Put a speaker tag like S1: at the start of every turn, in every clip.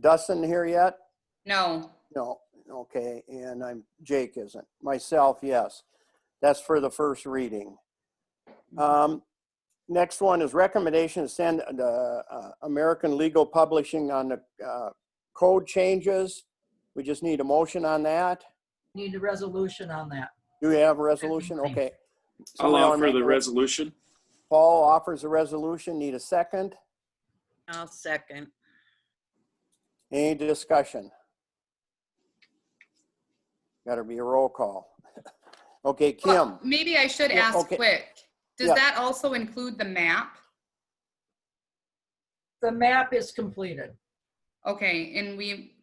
S1: Dustin here yet?
S2: No,
S1: No, okay, and I'm, Jake isn't. Myself, yes. That's for the first reading. Um, Next one is recommendation to send the uh, American Legal Publishing on the uh, code changes. We just need a motion on that.
S3: Need a resolution on that.
S1: Do we have a resolution? Okay.
S4: I'll
S1: Somebody wanna
S4: offer
S1: make
S4: the
S1: a-
S4: resolution.
S1: Paul offers a resolution. Need a second?
S5: I'll second.
S1: Any discussion? Gotta be a roll call. Okay, Kim?
S2: Well, maybe I should
S1: Yeah,
S2: ask
S1: okay.
S2: quick. Does
S1: Yeah.
S2: that also include the map?
S3: The map is completed.
S2: Okay, and we,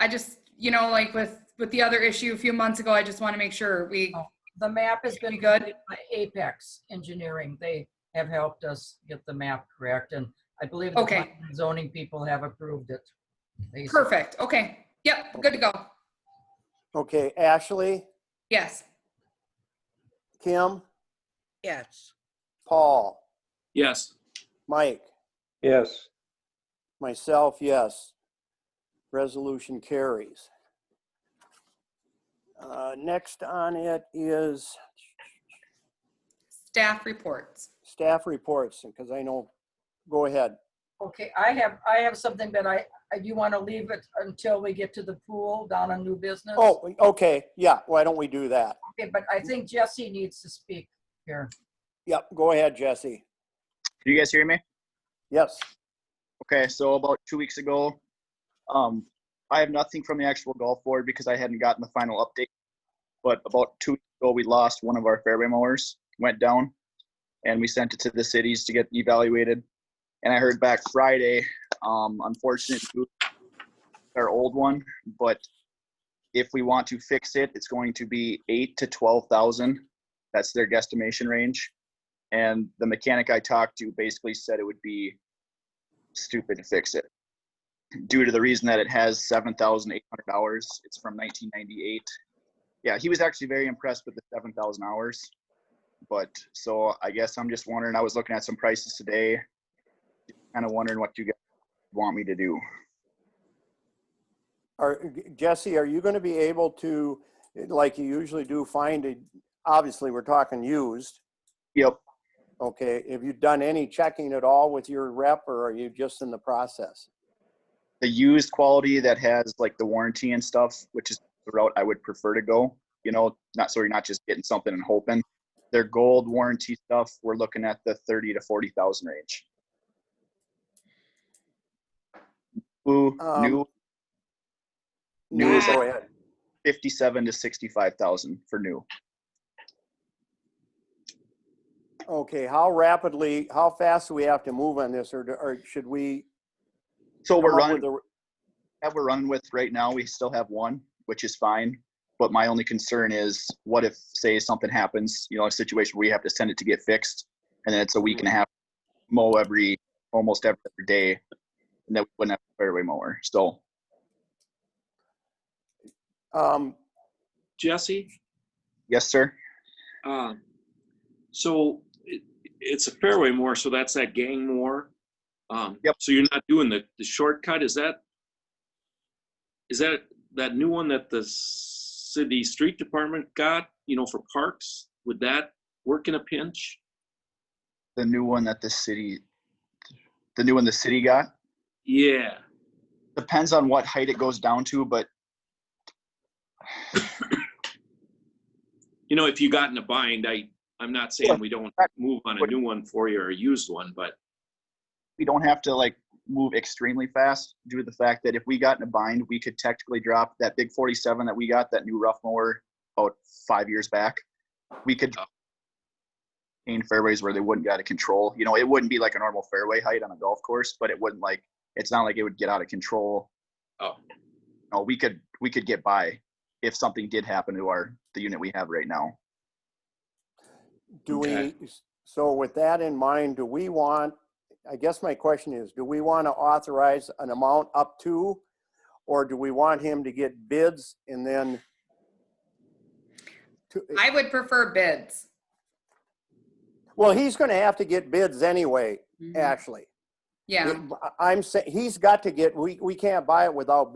S2: I just, you know, like with, with the other issue a few months ago, I just want to make sure we,
S3: The map has been
S2: You good?
S3: completed by Apex Engineering. They have helped us get the map correct, and I believe the
S2: Okay.
S3: planning and zoning people have approved it. They-
S2: perfect, okay. Yep, good to go.
S1: Okay, Ashley,
S2: Yes,
S1: Kim,
S5: Yes,
S1: Paul?
S4: Yes,
S1: Mike?
S6: yes,
S1: Myself, yes. Resolution carries. Uh, Next on it is
S2: staff reports.
S1: staff reports, because I know, go ahead.
S3: Okay, I have, I have something that I, I- you want to leave it until we get to the pool down on new business?
S1: Oh, okay, yeah, why don't we do that?
S3: Okay, but I think Jesse needs to speak here.
S1: Yep, go ahead, Jesse.
S7: Do you guys hear me?
S1: Yes,
S7: Okay, so about two weeks ago, um, I have nothing from the actual golf board because I hadn't gotten the final update. But about two weeks ago, we lost one of our fairway mowers, went down, and we sent it to the cities to get evaluated. And I heard back Friday, um, unfortunate, our old one, but if we want to fix it, it's going to be eight to twelve thousand. That's their guesstimation range. And the mechanic I talked to basically said it would be stupid to fix it due to the reason that it has 7,800 hours. It's from 1998. Yeah, he was actually very impressed with the 7,000 hours. But so I guess I'm just wondering, I was looking at some prices today, kind of wondering what you guys want me to do.
S1: are, Jesse, are you going to be able to, like you usually do, find, a- obviously, we're talking used,
S7: Yep.
S1: okay? Have you done any checking at all with your rep, or are you just in the process?
S7: The used quality that has like the warranty and stuff, which is the route I would prefer to go, you know, not so you're not just getting something and hoping. Their gold warranty stuff, we're looking at the 30 to 40,000 range. Ooh,
S1: Um,
S7: new New
S1: No,
S7: is-
S1: Go ahead.
S7: 57 to 65,000 for new.
S1: Okay, how rapidly, how fast do we have to move on this, or, do- or should we?
S7: So we're
S1: come up with
S7: running, that we're running with right now, we still have one, which is fine. But my only concern is what if, say, something happens, you know, a situation where we have to send it to get fixed and then it's a week and a half mow every, almost every other day. And then we wouldn't have a fairway mower. So
S1: a- Um,
S4: Jesse?
S7: yes, sir.
S4: Um, so it, it's a fairway more, so that's that gang more. Um,
S7: Yep.
S4: So you're not doing the, the shortcut. Is that is that that new one that the city street department got? You know, for parks, would that work in a pinch?
S7: The new one that the city, the new one the city got
S4: Yeah.
S7: depends on what height it goes down to, but
S4: You know, if you got in a bind, I I'm not saying we don't move on a new one for you or a used one, but
S7: we don't have to like move extremely fast due to the fact that if we got in a bind, we could technically drop that big 47 that we got, that new rough mower about five years back. We could in fairways where they wouldn't get out of control. You know, it wouldn't be like a normal fairway height on a golf course, but it wouldn't like it's not like it would get out of control.
S4: Oh.
S7: No, we could we could get by if something did happen to our the unit we have right now.
S1: do we,
S4: Okay.
S1: so with that in mind, do we want, I guess my question is, do we want to authorize an amount up to? Or do we want him to get bids and then? to- eh,
S2: I would prefer bids.
S1: Well, he's going to have to get bids anyway,
S2: Mhm.
S1: Actually,
S2: Yeah.
S1: I'm saying, he's got to get, we, we can't buy it without